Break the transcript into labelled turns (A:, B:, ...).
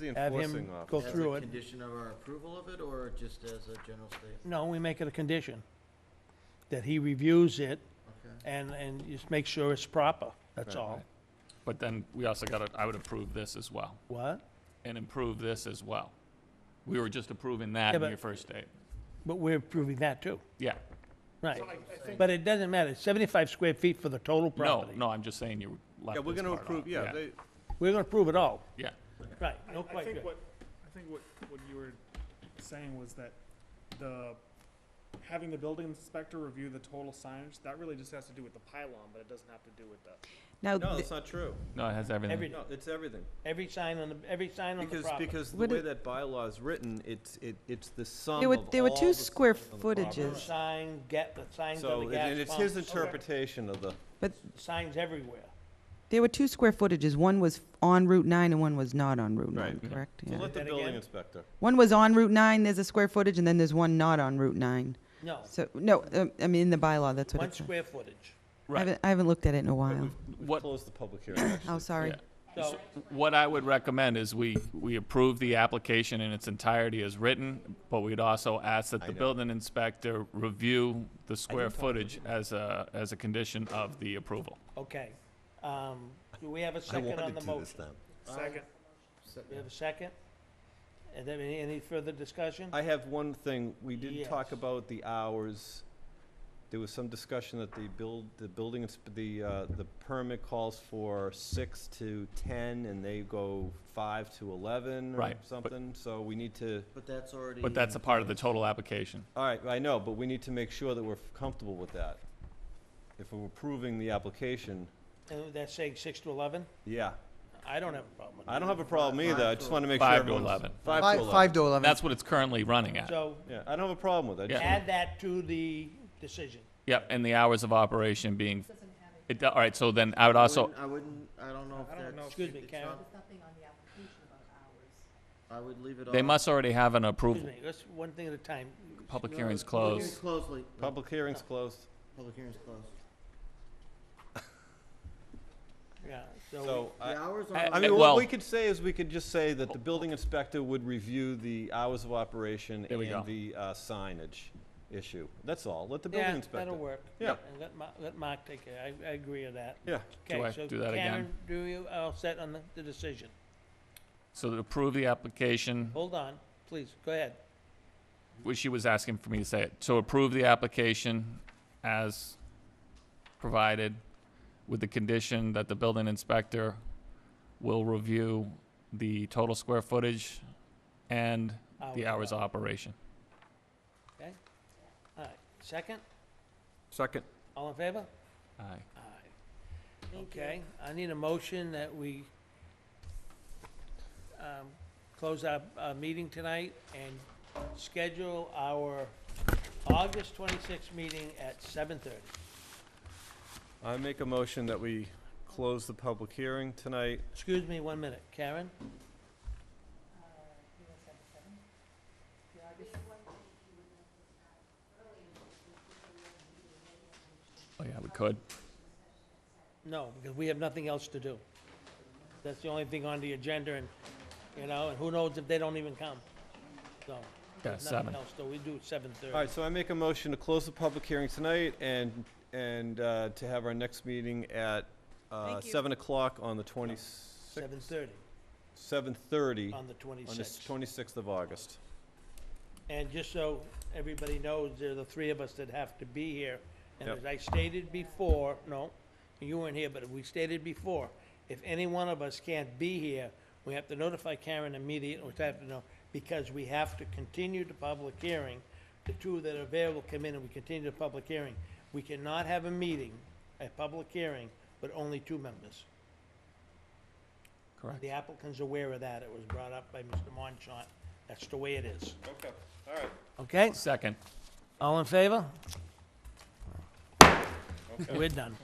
A: The
B: have
A: enforcing
B: him
A: officer.
B: go
C: As
B: through
C: a
B: it.
C: condition of our approval of it, or just as a general statement?
B: No, we make it a condition, that he reviews it
C: Okay.
B: and, and just make sure it's proper, that's
A: Right,
B: all.
A: right.
D: But then we also got to, I would approve this as well,
B: What?
D: and improve this as well. We were just approving that
B: Yeah,
D: in
B: but-
D: your first date.
B: But we're proving that too,
D: Yeah,
B: right. But it doesn't matter, It's 75 square feet for the total
D: no,
B: property.
D: no, I'm just saying you left
A: Yeah, we're
D: this
A: gonna
D: part
A: approve,
D: out.
A: yeah, they,
B: We're gonna prove it all,
D: Yeah,
B: right, no
E: I
B: question.
E: think what, I think what, what you were saying was that the, having the building inspector review the total signage, that really just has to do with the pylon, but it doesn't have to do with the.
F: Now,
A: no,
F: th-
A: that's not true.
D: no, it has everything.
B: Every-
A: No, it's everything.
B: Every sign on the, every sign on the
A: Because,
B: property.
A: because the
F: What
A: way
F: it-
A: that bylaw is written, it's, it, it's the sum
F: There were-
A: of
F: there were
A: all
F: two
A: the
F: square
A: signs on the property.
F: footages.
B: Sign, get the signs on
A: So,
B: the
A: and-
B: gas
A: and it's his
B: pumps,
A: interpretation of the,
F: but
B: Signs everywhere.
F: there were two square footages. One was on Route 9 and one was not on Route 9,
A: Right.
D: Yeah.
F: correct?
A: so
F: Yeah.
A: let the
B: That
A: building
B: again?
A: inspector.
F: One was on Route 9, there's a square footage, and then there's one not on Route 9.
B: No,
F: So, no, um, I mean, in the bylaw, that's what
B: one
F: it says.
B: square footage.
F: I
D: Right.
F: haven't, I haven't looked at it in a while.
A: We've
D: What-
A: closed the public hearing, actually.
F: Oh, sorry.
D: Yeah.
B: So,
D: What I would recommend is we, we approve the application in its entirety as written, but we'd also ask that
A: I
D: the
A: know.
D: building inspector review the square footage as a, as a condition of the approval.
B: okay. Um, do we have a
A: I
B: second on
A: wanted
B: the
A: to do this
B: motion?
A: then.
E: Second.
C: So-
B: We have a second? And then any, any further discussion?
A: I have one thing, we didn't talk
B: Yes.
A: about the hours. There was some discussion that the build, the building, insp- the, uh, the permit calls for six to ten, and they go five to eleven or
D: Right, but-
A: something, so we need to,
C: But that's already.
D: But that's a part of the total application.
A: all right, I know, but we need to make sure that we're comfortable with that. If we're approving the application,
B: And that's saying six to eleven?
A: yeah,
B: I don't have a problem with that.
A: I don't have a problem either, I just wanna make sure
D: Five to
A: everyone's.
D: 11.
A: Five to eleven,
G: to 11.
D: That's what it's currently running at.
B: So
A: yeah, I don't have a problem with that. I just
D: Yeah.
B: add that to the decision.
D: Yep, and the hours of operation being, it, do- all right, so then I would also,
C: I wouldn't, I don't know if
E: I don't know
C: that's.
E: if
B: Excuse me,
C: it's
B: Karen.
C: not- I would leave it on.
D: they must already have an
B: Excuse
D: approval.
B: me, let's, one thing at a time.
D: Public
C: No,
D: hearing's
C: public hearing's
D: closed.
C: Closely.
A: want- Public hearing's closed,
C: Public hearing's closed.
B: Yeah, so,
A: so I,
C: The hours
D: I-
A: I
C: are,
D: I-
A: mean,
D: well-
A: what we could say is we could just say that the building inspector would review the hours of operation
D: There we go.
A: and the uh, signage issue. That's all. Let the building
B: yeah,
A: inspector.
B: that'll work.
A: Yeah.
B: And let Ma, let Mark take it, I, I agree with that.
A: Yeah.
D: Do
B: Okay,
D: I
B: so
D: do that
B: Karen,
D: again?
B: do you, all set on the, the decision?
D: So to approve the application,
B: Hold on, please, go ahead.
D: which she was asking for me to say it, so approve the application as provided with the condition that the building inspector will review the total square footage and the hours of operation.
B: All right, second,
A: Second.
B: all in favor?
D: Aye.
B: Aye. Okay, I need a motion that we um, close our, our meeting tonight and schedule our August twenty-sixth meeting at seven thirty.
A: I make a motion that we close the public hearing tonight.
B: Excuse me one minute, Karen?
D: Oh, yeah, we could.
B: No, because we have nothing else to do. That's the only thing on the agenda and, you know, and who knows if they don't even come, so.
D: Yeah,
B: there's
D: seven.
B: Nothing else, so we do seven thirty.
A: All right, so I make a motion to close the public hearing tonight and, and uh, to have our next meeting at uh,
F: Thank you.
A: 7 o'clock on the 26th,
B: Seven thirty
A: 7:30 on
B: on the
A: the
B: twenty-sixth.
A: 26th of August.
B: And just so everybody knows, there are the three of us that have to be here. And
A: Yep.
B: as I stated before, no, you weren't here, but we stated before, if any one of us can't be here, we have to notify Karen immediately, which I have to know, because we have to continue the public hearing. The two that are available come in and we continue the public hearing. We cannot have a meeting, a public hearing, but only two members.
D: Correct.
B: The applicant's aware of that. It was brought up by Mr. Monchant. That's the way it is.
A: Okay, all right.
B: Okay?
D: Second.
B: All in favor? We're done.